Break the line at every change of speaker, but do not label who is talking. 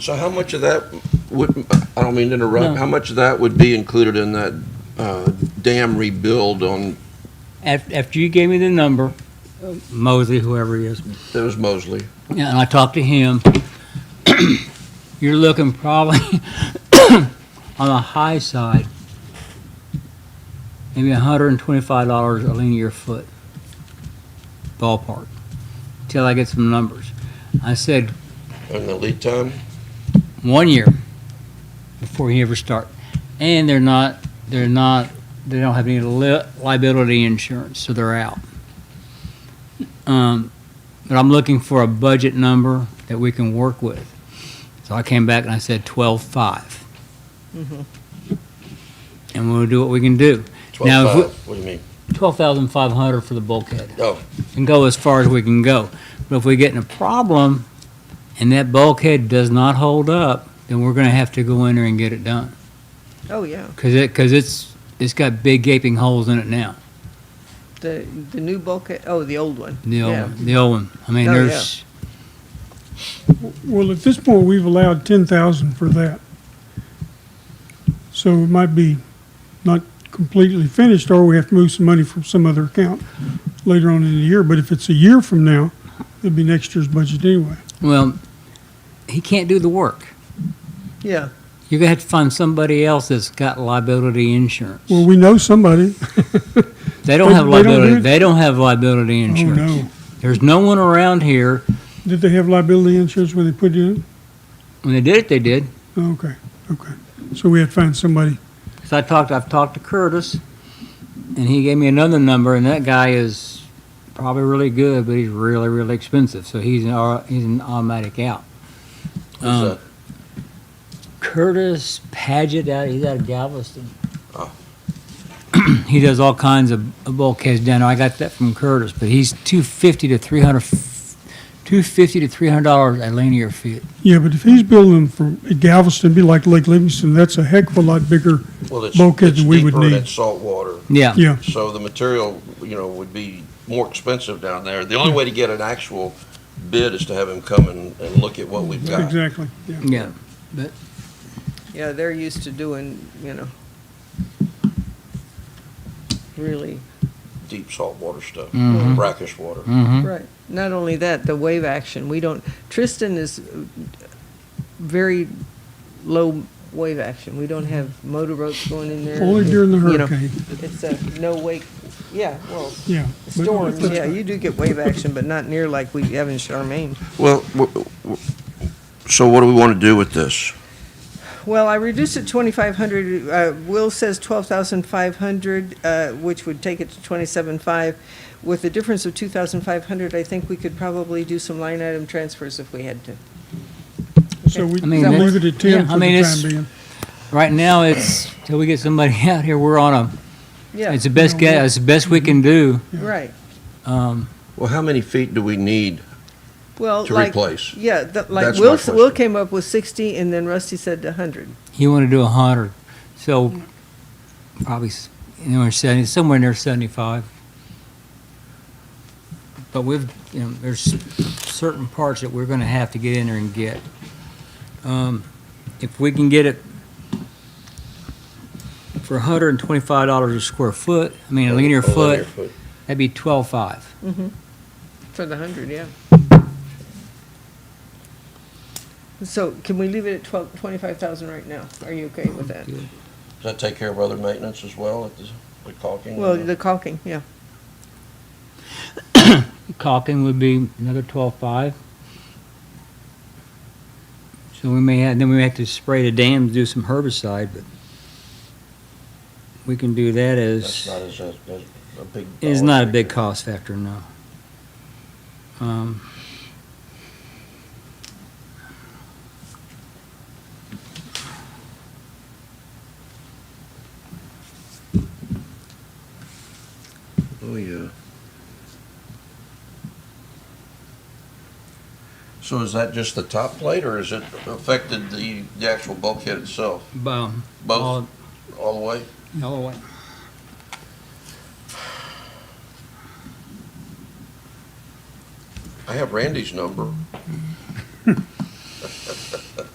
So how much of that would, I don't mean to
No.
interrupt, how much of that would be included in that uh, dam rebuild on,
After, after you gave me the number, Mosley, whoever he is,
that was Mosley?
Yeah, and I talked to him. You're looking probably on the high side, maybe hundred and twenty-five dollars a linear foot ballpark, till I get some numbers. I said,
And the lead time?
one year before you ever start. And they're not, they're not, they don't have any li- liability insurance, so they're out. Um, but I'm looking for a budget number that we can work with. So I came back and I said twelve-five. And we'll do what we can do. Now,
12.5.
if we-
What do you mean?
Twelve thousand five hundred for the bulkhead
Oh,
and go as far as we can go. But if we get in a problem and that bulkhead does not hold up, then we're gonna have to go in there and get it done.
Oh, yeah.
Cause it, cause it's, it's got big gaping holes in it now,
The, the new bulkhead, oh, the old one.
the old,
Yeah.
one- the old one. I mean,
Oh, yeah.
there's,
Well, at this point, we've allowed ten thousand for that. So it might be not completely finished, or we have to move some money from some other account later on in the year. But if it's a year from now, it'd be next year's budget anyway.
well, he can't do the work.
Yeah.
You're gonna have to find somebody else that's got liability insurance.
Well, we know somebody.
They don't have
they don't do
liability,
it?
they don't have liability
Oh,
insurance.
no.
There's no one around here.
Did they have liability insurance when they put it in?
When they did it, they did.
Oh, Okay, okay. So we had to find somebody.
So I talked, I've talked to Curtis, and he gave me another number, and that guy is probably really good, but he's really, really expensive, so he's an, au- he's an automatic out.
who's
Um,
that?
Curtis Paget, out he's out of Galveston.
Oh.
he does all kinds of of bulkheads down there. I got that from Curtis, but he's two fifty to three hundred, two fifty to three hundred dollars a linear foot.
Yeah, but if he's building from Galveston, it'd be like Lake Livingston, that's a heck of a lot bigger.
Well, it's,
bulkhead
it's
that we would
deeper and
need.
it's salt water.
Yeah.
Yeah,
So the material, you know, would be more expensive down there. The only way to get an actual bid is to have him come and, and look at what we've got.
exactly, yeah.
Yeah.
Yeah, they're used to doing, you know, really,
Deep salt water stuff,
Mhm.
brackish water.
Mm-hmm.
right. Not only that, the wave action, we don't, Tristan is uh, very low wave action. We don't have motor ropes going in there.
Only during the
You know,
hurricane,
It's a no wake, yeah, well,
yeah. But-
storms, yeah, you do get wave action, but not near like we have in Charmaine.
Well, w- w- so what do we want to do with this?
Well, I reduced it twenty-five hundred, uh, Will says twelve thousand five hundred, uh, which would take it to twenty-seven five. With the difference of two thousand five hundred, I think we could probably do some line item transfers if we had to.
So we
I mean,
we'll leave it
that's-
at ten
yeah, I
for
mean,
the
it's-
time being.
Right now, it's, till we get somebody out here, we're on a,
Yeah,
It's the best guess, it's the best we can do.
right.
Um,
Well, how many feet do we need
Well,
to
like,
replace?
yeah, the- like
That's
Will,
my
s- Will
question.
came up with sixty and then Rusty said a hundred.
he wanted to do a hundred, so probably s- anywhere seventy, somewhere near seventy-five. But we've, you know, there's certain parts that we're gonna have to get in there and get. Um, if we can get it for hundred and twenty-five dollars a square foot, I mean, a linear foot, that'd be twelve-five.
Mm-hmm. For the hundred, yeah. So can we leave it at twelve, twenty-five thousand right now? Are you okay with that?
Does that take care of other maintenance as well, at the, the caulking?
Well, the caulking, yeah.
caulking would be another twelve-five. So we may have, then we may have to spray the dams, do some herbicide, but we can do that
That's
as,
not as, as as a big.
it's
dollar
not a big
figure.
cost factor, no. Um,
Oh, yeah. So is that just the top plate, or is it affected the, the actual bulkhead itself,
bu- um,
both, all the way?
all- all the way.
I have Randy's number.